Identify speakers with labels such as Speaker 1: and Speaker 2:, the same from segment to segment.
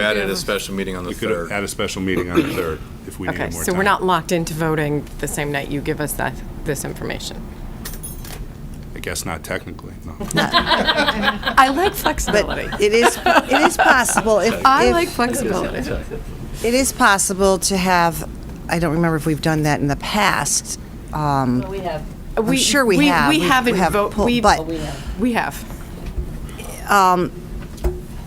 Speaker 1: Added a special meeting on the
Speaker 2: We could
Speaker 1: 3rd.
Speaker 2: add a special meeting on the 3rd if we
Speaker 3: Okay,
Speaker 2: needed more time.
Speaker 3: so we're not locked into voting the same night you give us that, this information.
Speaker 2: I guess not technically, no.
Speaker 3: I like flexibility.
Speaker 4: It is, it is possible, if,
Speaker 3: I
Speaker 4: if-
Speaker 3: like flexibility.
Speaker 4: it is possible to have, I don't remember if we've done that in the past. um,
Speaker 5: We have,
Speaker 4: I'm sure we have.
Speaker 3: We
Speaker 4: We-
Speaker 3: haven't
Speaker 4: we have
Speaker 3: vote,
Speaker 4: pulled,
Speaker 3: Oh, we,
Speaker 4: but-
Speaker 3: we have.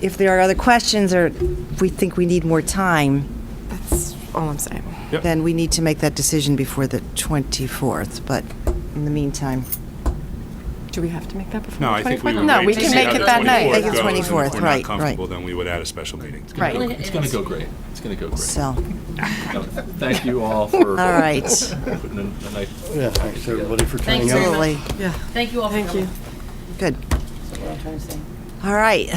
Speaker 4: If there are other questions, or if we think we need more time,
Speaker 3: That's all I'm saying.
Speaker 2: Yep.
Speaker 4: then we need to make that decision before the 24th, but in the meantime,
Speaker 3: Do we have to make that before?
Speaker 2: No,
Speaker 3: the
Speaker 2: I think we
Speaker 3: 24th?
Speaker 2: would
Speaker 3: No,
Speaker 2: wait
Speaker 3: we
Speaker 2: to
Speaker 3: can
Speaker 2: see
Speaker 3: make
Speaker 2: how
Speaker 3: it
Speaker 2: the
Speaker 3: that night.
Speaker 4: Make it
Speaker 2: goes, and if
Speaker 4: 24th,
Speaker 2: we're
Speaker 4: right,
Speaker 2: not comfortable,
Speaker 4: right.
Speaker 2: then we would add a special meeting.
Speaker 3: Right.
Speaker 1: It's going to go great. It's going to go great.
Speaker 4: so,
Speaker 1: Thank you all for
Speaker 4: all right.
Speaker 1: putting in a nice
Speaker 6: Yeah, thanks everybody for
Speaker 5: Thanks
Speaker 6: turning
Speaker 5: very
Speaker 6: out.
Speaker 5: much.
Speaker 4: Totally,
Speaker 3: Yeah.
Speaker 5: thank you all for
Speaker 3: Thank you.
Speaker 5: coming.
Speaker 4: good.
Speaker 5: Thank you.
Speaker 4: All right.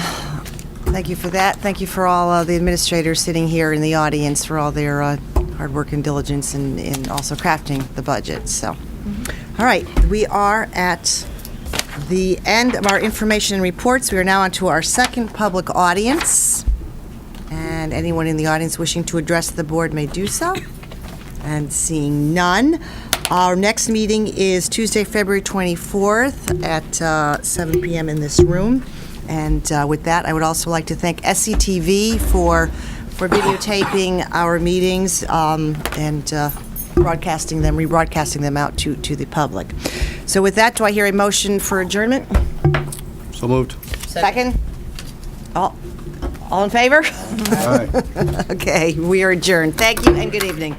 Speaker 4: Thank you for that. Thank you for all uh, the administrators sitting here in the audience for all their uh, hard work and diligence in, in also crafting the budget, so. All right, we are at the end of our information and reports. We are now on to our second public audience. And anyone in the audience wishing to address the board may do so. And seeing none, our next meeting is Tuesday, February 24th at uh, 7 PM in this room. And uh, with that, I would also like to thank SCTV for, for videotaping our meetings um, and uh, broadcasting them, rebroadcasting them out to, to the public. So with that, do I hear a motion for adjournment?
Speaker 6: So moved.
Speaker 4: Second? All, all in favor?
Speaker 6: All right.
Speaker 4: Okay, we are adjourned. Thank you and good evening.